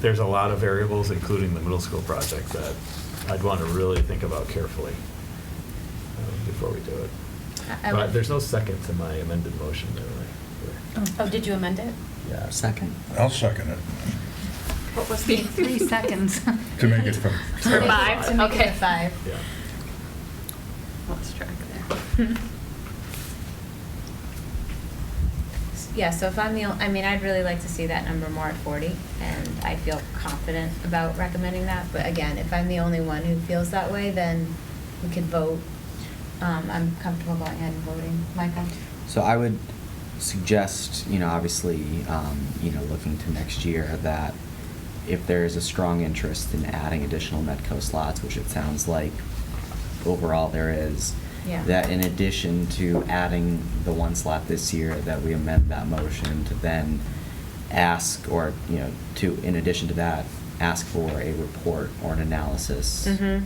there's a lot of variables, including the middle school project, that I'd want to really think about carefully uh, before we do it. I- I But would- there's no second to my amended motion, really. Oh, did you amend it? Yeah. Second. I'll second it. What was the? Be three seconds. To make it from- To make it- Five, To make it okay. a five. Yeah. Lost track there. Yeah, so if I'm the, ol- I mean, I'd really like to see that number more at 40, and I feel confident about recommending that, but again, if I'm the only one who feels that way, then we could vote. Um, I'm comfortable going ahead and voting. Michael? So I would suggest, you know, obviously, um, you know, looking to next year that if there is a strong interest in adding additional Medco slots, which it sounds like overall there is, Yeah. that in addition to adding the one slot this year, that we amend that motion to then ask or, you know, to, in addition to that, ask for a report or an analysis Mhm.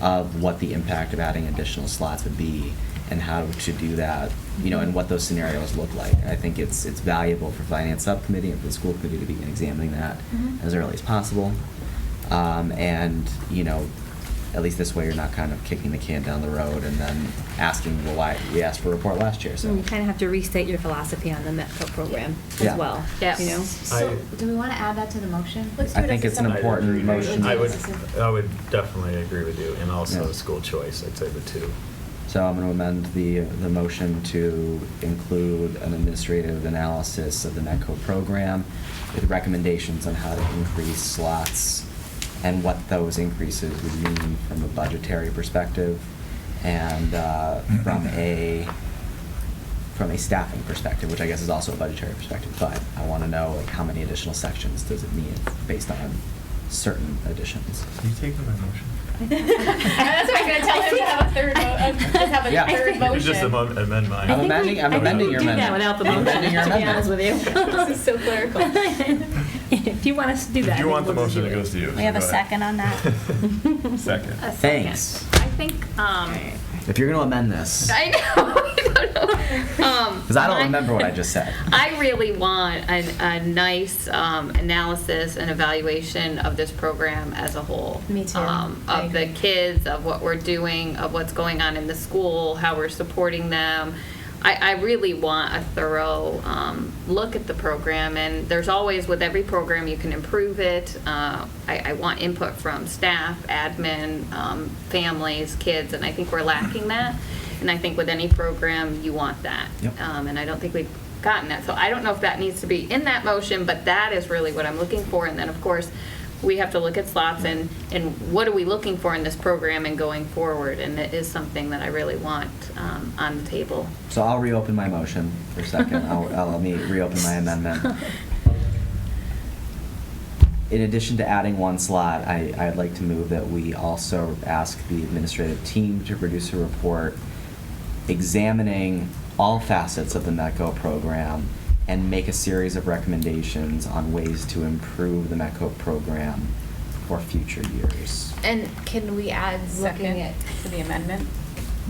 of what the impact of adding additional slots would be and how to do that, you know, and what those scenarios look like. I think it's, it's valuable for finance subcommittee and for the school committee to begin examining that Mhm. as early as possible. Um, and, you know, at least this way you're not kind of kicking the can down the road and then asking, well, why, we asked for a report last year, so. Mm, You kind of have to restate your philosophy on the METCO program Yeah. as well. Yes. You know? So, I- do we want to add that to the motion? Let's do I it as think a it's an separate- important I'd agree. motion. I would, I would definitely agree with you, and also Yeah. school choice, I'd say the two. So I'm going to amend the, the motion to include an administrative analysis of the METCO program with recommendations on how to increase slots and what those increases would mean from a budgetary perspective and uh, from a, from a staffing perspective, which I guess is also a budgetary perspective, but I want to know like how many additional sections does it mean based on certain additions. Can you take my motion? That's what I'm gonna tell him to have a third, um, mo- uh, to have Yeah. a third You just amend motion. amend mine. I'm amending, I'm I think amending we your do that amendment. without the I'm motion, amending your to be amendment. honest with you. This is so clerical. If you want us to do that. If you then want the we'll just motion, do it goes to you. We have a second on that? Second. A second. Thanks. I think, um, If you're going to amend this. I know, I don't know. Um, Because I don't my- remember what I just said. I really want a, a nice um, analysis and evaluation of this program as a whole. Me too. Um, I Of the agree. kids, of what we're doing, of what's going on in the school, how we're supporting them. I, I really want a thorough um, look at the program, and there's always, with every program, you can improve it. Uh, I, I want input from staff, admin, um, families, kids, and I think we're lacking that. And I think with any program, you want that. Yep. Um, And I don't think we've gotten that. So I don't know if that needs to be in that motion, but that is really what I'm looking for. And then, of course, we have to look at slots and, and what are we looking for in this program and going forward? And it is something that I really want um, on the table. So I'll reopen my motion for a second. I'll, I'll let me reopen my amendment. In addition to adding one slot, I, I'd like to move that we also ask the administrative team to produce a report examining all facets of the METCO program and make a series of recommendations on ways to improve the METCO program for future years. And can we add looking at to the amendment?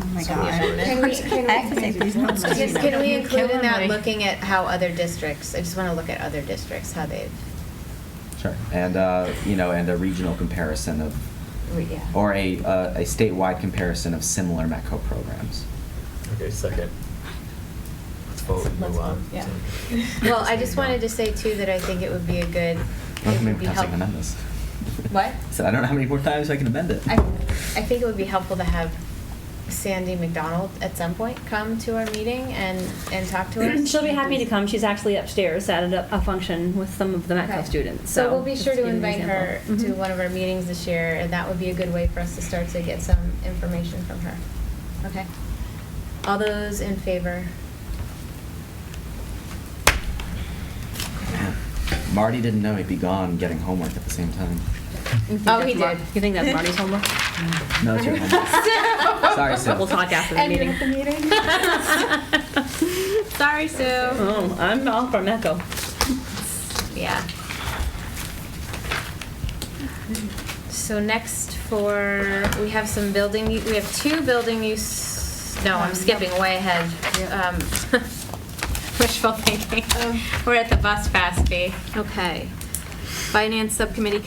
Oh, my God. Can we- can I we- have to take these notes. Yes, you know. Can we include in that Killing me. looking at how other districts, I just want to look at other districts, how they've, Sure. And, uh, you know, and a regional comparison of re- yeah. or a, uh, a statewide comparison of similar METCO programs. Okay, second. Let's vote and Let's move on. vote, yeah. Well, I just wanted to say too that I think it would be a good, I it would don't know how be many times I can amend helpful. this. What? So I don't know how many more times I can amend it. I, I think it would be helpful to have Sandy McDonald at some point come to our meeting and, and talk to us. She'll be happy to come. She's actually upstairs at a, a function with some of the Okay. METCO students, so. So we'll be just sure to give you an invite her example. to Mhm. one of our meetings this year, and that would be a good way for us to start to get some information from her. Okay? All those in favor? Marty didn't know he'd be gone getting homework at the same time. You think Oh, he that's Mar- did. You think that's Marty's homework? No, it's your homework. Sorry, Sue. We'll talk after the Ending the meeting. meeting. Sorry, Sue. Oh, I'm all for METCO. Yeah. So next for, we have some building, u- we have two building use, no, Um, I'm skipping way ahead. Um, Um. Wishful thinking. We're at the bus pass fee. Okay. Finance Subcommittee